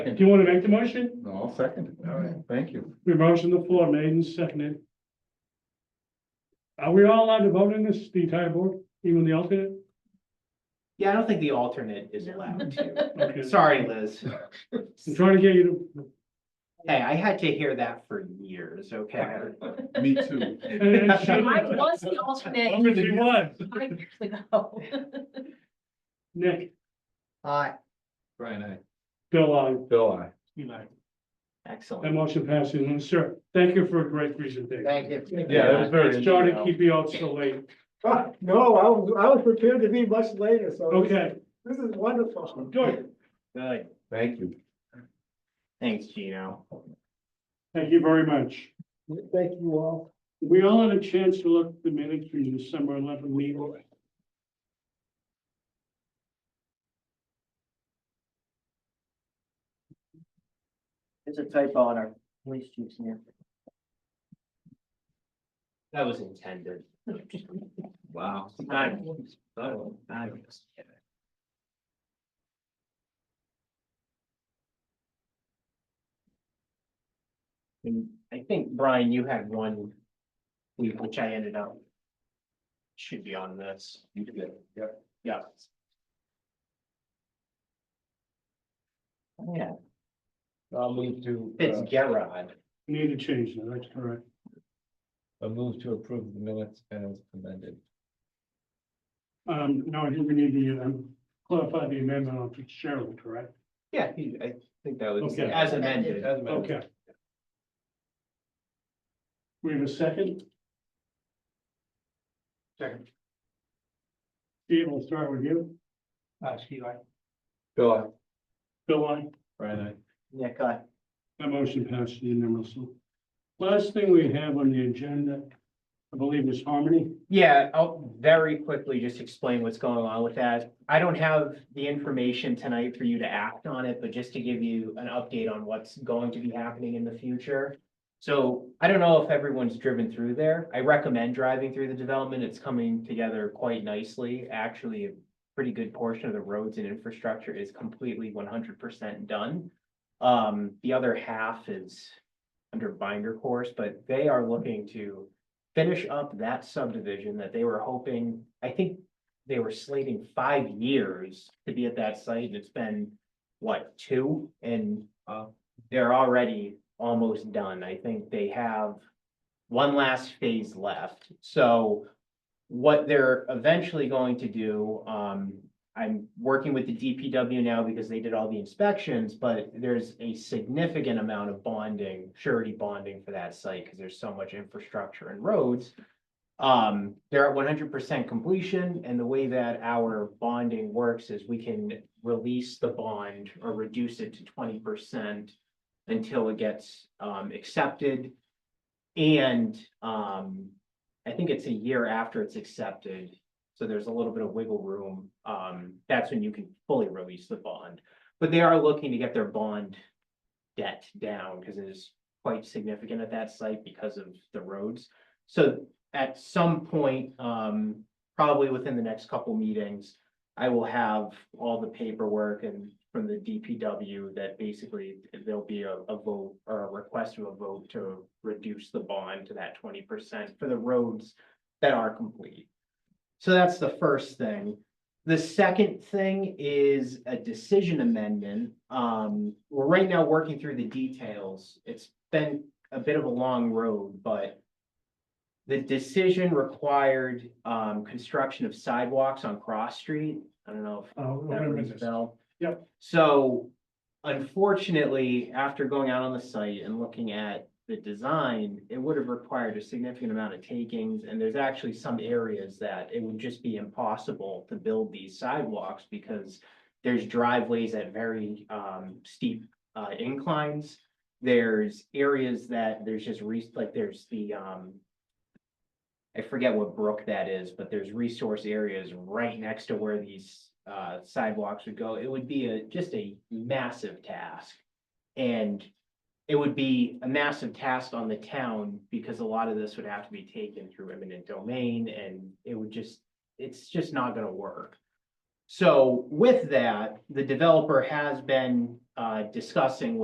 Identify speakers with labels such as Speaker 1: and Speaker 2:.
Speaker 1: Do you want to make the motion?
Speaker 2: No, I'll second it. All right, thank you.
Speaker 1: We have motion on the floor, made and seconded. Are we all allowed to vote in this, the entire board, even the alternate?
Speaker 3: Yeah, I don't think the alternate is allowed to.
Speaker 1: Okay,
Speaker 3: Sorry, Liz.
Speaker 1: I'm trying to get you to,
Speaker 3: Hey, I had to hear that for years, okay?
Speaker 2: Me too.
Speaker 1: and it should-
Speaker 4: I was the alternate.
Speaker 1: I'm gonna do what?
Speaker 4: five years ago.
Speaker 1: Nick,
Speaker 5: Aye.
Speaker 2: Brian, I.
Speaker 1: Bill, I.
Speaker 2: Bill, I.
Speaker 1: That
Speaker 3: Excellent.
Speaker 1: motion passes, sir, thank you for a great presentation.
Speaker 5: Thank you.
Speaker 2: Yeah, that was very.
Speaker 1: It's sorry to keep you out so late,
Speaker 6: Ah, No, I was, I was prepared to be much later, so. this-
Speaker 1: okay,
Speaker 6: This is wonderful.
Speaker 1: good,
Speaker 3: Good.
Speaker 2: Thank you.
Speaker 3: Thanks, Gino.
Speaker 1: thank you very much.
Speaker 6: Thank you all.
Speaker 1: We all had a chance to look at the minutes from the December eleven meeting.
Speaker 5: There's a typo on our police chief's name.
Speaker 3: That was intended. Wow. And I think, Brian, you had one, we- which I ended up. Should be on this. You did, yep. Yeah. Oh, Yeah,
Speaker 2: I'll move to, uh,
Speaker 3: it's Gerard.
Speaker 1: Need to change that, that's correct.
Speaker 2: I'll move to approve the minutes as amended.
Speaker 1: Um, now I think we need to, um, clarify the amendment on Fitzgerald, correct?
Speaker 3: Yeah, he- I think that was
Speaker 1: Okay.
Speaker 3: as amended.
Speaker 1: Okay. We have a second?
Speaker 6: Second.
Speaker 1: Steve, we'll start with you.
Speaker 6: Uh, Steve, I.
Speaker 2: Bill, I.
Speaker 1: Bill, I,
Speaker 2: Brian, I.
Speaker 3: Yeah, go ahead.
Speaker 1: that motion passed unanimously. Last thing we have on the agenda, I believe is Harmony.
Speaker 3: Yeah, I'll very quickly just explain what's going on with that. I don't have the information tonight for you to act on it, but just to give you an update on what's going to be happening in the future. So I don't know if everyone's driven through there. I recommend driving through the development. It's coming together quite nicely. Actually, a pretty good portion of the roads and infrastructure is completely one hundred percent done. Um, the other half is under binder course, but they are looking to finish up that subdivision that they were hoping, I think they were slating five years to be at that site, and it's been, what, two? And uh, they're already almost done. I think they have one last phase left. So what they're eventually going to do, um, I'm working with the DPW now because they did all the inspections, but there's a significant amount of bonding, surety bonding for that site, because there's so much infrastructure and roads. Um, they're at one hundred percent completion, and the way that our bonding works is we can release the bond or reduce it to twenty percent until it gets, um, accepted. And, um, I think it's a year after it's accepted, so there's a little bit of wiggle room. Um, that's when you can fully release the bond. But they are looking to get their bond debt down because it is quite significant at that site because of the roads. So at some point, um, probably within the next couple meetings, I will have all the paperwork and from the DPW that basically there'll be a, a vote or a request of a vote to reduce the bond to that twenty percent for the roads that are complete. So that's the first thing. The second thing is a decision amendment. Um, we're right now working through the details. It's been a bit of a long road, but the decision required, um, construction of sidewalks on Cross Street. I don't know if
Speaker 1: Uh, we're
Speaker 3: that
Speaker 1: gonna
Speaker 3: rings
Speaker 1: miss
Speaker 3: a
Speaker 1: this.
Speaker 3: bell.
Speaker 1: Yep.
Speaker 3: So unfortunately, after going out on the site and looking at the design, it would have required a significant amount of takings. And there's actually some areas that it would just be impossible to build these sidewalks because there's driveways at very um steep uh inclines. There's areas that there's just re, like there's the um I forget what brook that is, but there's resource areas right next to where these uh sidewalks would go. It would be a, just a massive task. And it would be a massive task on the town because a lot of this would have to be taken through eminent domain and it would just, it's just not gonna work. So with that, the developer has been uh, discussing with